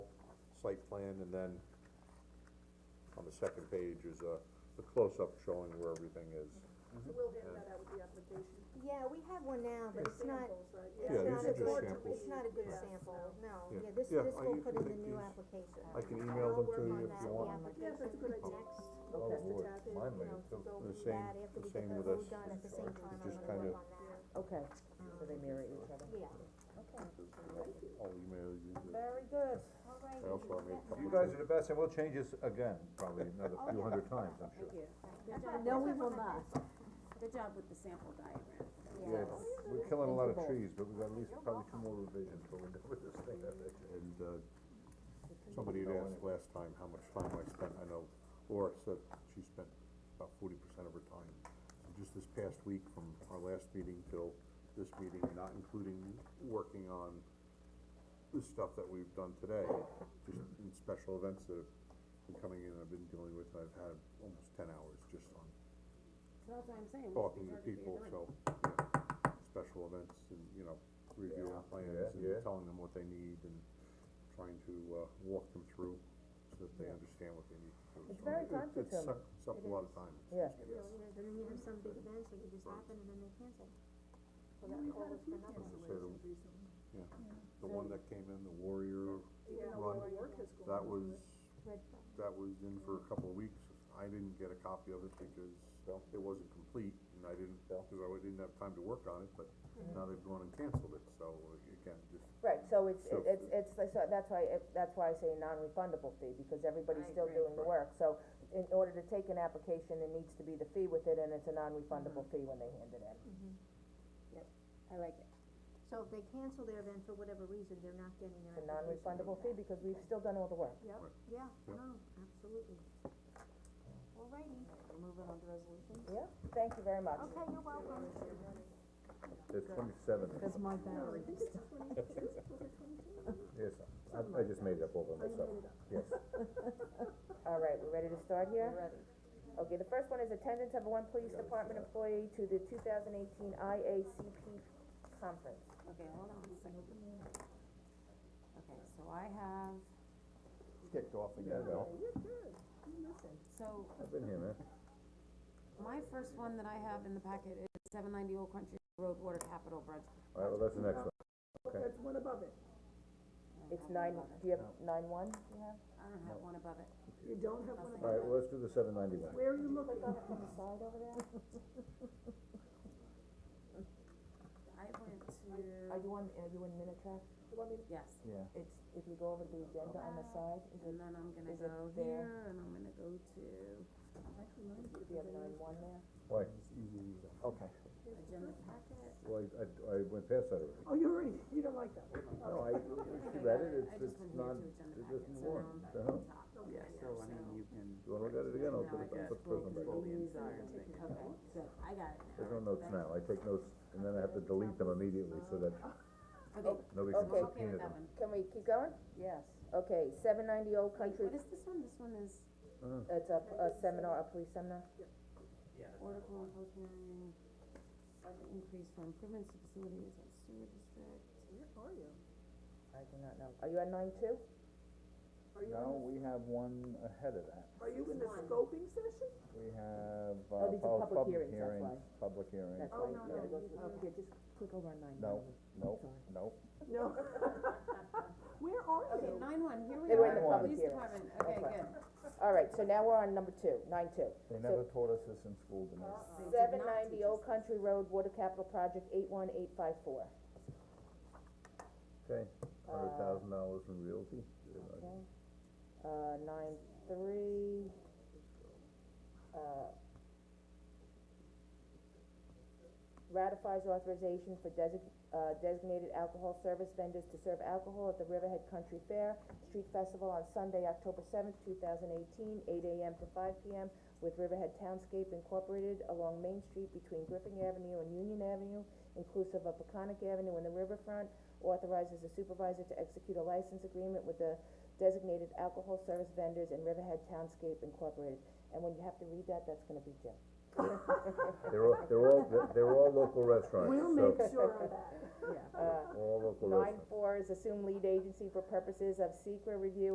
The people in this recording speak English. site plan, and then on the second page is a, a close-up showing where everything is. So we'll hand that out with the application. Yeah, we have one now, but it's not, Samples, right? it's Yeah, these not are a just good, samples. it's not a good Yeah. sample, no, Yeah. yeah, this, Yeah, this I- will you put can in the make new these. application. I can I'll email them work to you on if that, you the want. Yeah, that's a good application idea. next, Oh, Lord, mine We'll test it out and, you may know, too. go The with same- that after the we same get the with road us. done at the It's same just time, I'm gonna kinda- work on that, Okay, so they mirror each other. yeah. Okay. I'll email you. the- Very good. I also have a couple. You guys are the best, and we'll change this again, probably another few hundred times, I'm sure. Good job, No, we will not. good job with the sample diagram. Yeah, we're killing a lot of trees, but we've got at least probably two more revisions till we're done with this thing, I bet you. And, uh, somebody had asked last time how much time I spent, I know Laura said she spent about forty percent of her time. So Just this past week from our last meeting till this meeting, not including working on the stuff that we've done today, just in special events that have been coming in, I've been dealing with, I've had almost ten hours just on So that's what I'm saying. talking to people, so, yeah, special events and, you know, reviewing Yeah, plans yeah, yeah. and telling them what they need and trying to, uh, walk them through so that they understand what they need to do. It's So very it- it- it time-consuming. suck- Suck a lot of time. Yeah. You know, you know, then you have some big events that could just happen and then they cancel. So that all was for nothing. So the- Yeah, the one that came in, the Warrior Even though Run, our work is going. that was, Red Bull. that was in for a couple of weeks. I didn't get a copy of it because it wasn't complete and I didn't, because I didn't have time to work on it, but Mm-hmm. now they've gone and canceled it, so uh, again, just Right, so it's, So- it's, it's, so that's why, it- that's why I say non-refundable fee, because everybody's still doing the work. So in order to take an application, there needs to be the fee with it, and it's a non-refundable fee when they hand it in. Mm-hmm. I like it. So if they cancel their event for whatever reason, they're not getting their It's a application. non-refundable fee, because we've still done all the work. Yep, Right. yeah, Yep. no, absolutely. Alrighty, Moving on to resolution. Yeah, thank you very much. okay, you're welcome. It's twenty-seven. That's my battery. Yes, I, I just made it up over myself, yes. All right, we ready to start here? Okay, the first one is attendance of one police department employee to the two thousand eighteen IACP conference. Okay, hold on a second. Okay, so I have, Kicked off again, Bill. so I've been here, man. my first one that I have in the packet is seven ninety Old Country Road Water Capital Bridge. All right, well, that's the next one. That's one above it. It's nine, do you have nine one? Yeah. I don't have one above it. You don't have one above. All right, well, let's do the seven ninety-one. Where are you looking? I went to, Are you on, are you in Minutetrack? yes, Yeah. It's, if you go over to the agenda on the side, is it, and then I'm gonna Is it go there? here, and I'm gonna go to do you have nine one there? Why? Okay. agenda packet. Well, I, I, I went past that already. Oh, you already, you don't like that one. Oh, No, I, she read it, it's, it's not, it doesn't work. The hell? Yeah, so I mean, you can. You wanna Uh-huh. look at it again, I'll Now put I it, got I'll put prison back. control these are, okay, good, I got it now. There's no notes now, I take notes, and then I have to delete them immediately so that Okay, nobody can Okay. okay subpoena with that them. one. Can we keep going? Yes. Okay, seven ninety Old Wait, Country, what is this one? This one is it's a, a seminar, a police seminar? article on public hearing, budget increase for improvements to facilities at sewer district. Where are you? I do not know. Oh, Are you at nine two? Are you, No, we have one ahead of that. are you in the scoping session? We have, Oh, uh, these are pub- public public hearings, that's hearing, why. public hearing. That's Oh, right, no, you no, gotta go you- through, oh, here, just click over on nine. No, no, no. No. Where are Okay, you? nine one, here we They were in are, the Nine public police hearing. department, okay, That's good. All right, so now we're on number two, nine two. They never taught us this in school, Denise. They did Seven not ninety teach us Old Country Road Water Capital Project, eight one eight five four. Okay, hundred thousand dollars in realty. Uh, nine three, uh, ratifies authorization for desig- uh, designated alcohol service vendors to serve alcohol at the Riverhead Country Fair Street Festival on Sunday, October seventh, two thousand eighteen, eight AM to five PM with Riverhead Townscape Incorporated along Main Street between Griffin Avenue and Union Avenue, inclusive of Peconic Avenue and the riverfront, authorizes the supervisor to execute a license agreement with the designated alcohol service vendors in Riverhead Townscape Incorporated. And when you have to read that, that's gonna be Jim. They're all, they're all, they're- they're all local restaurants, We'll so, make sure of that. all local uh, Nine restaurants. four is assume lead agency for purposes of secret review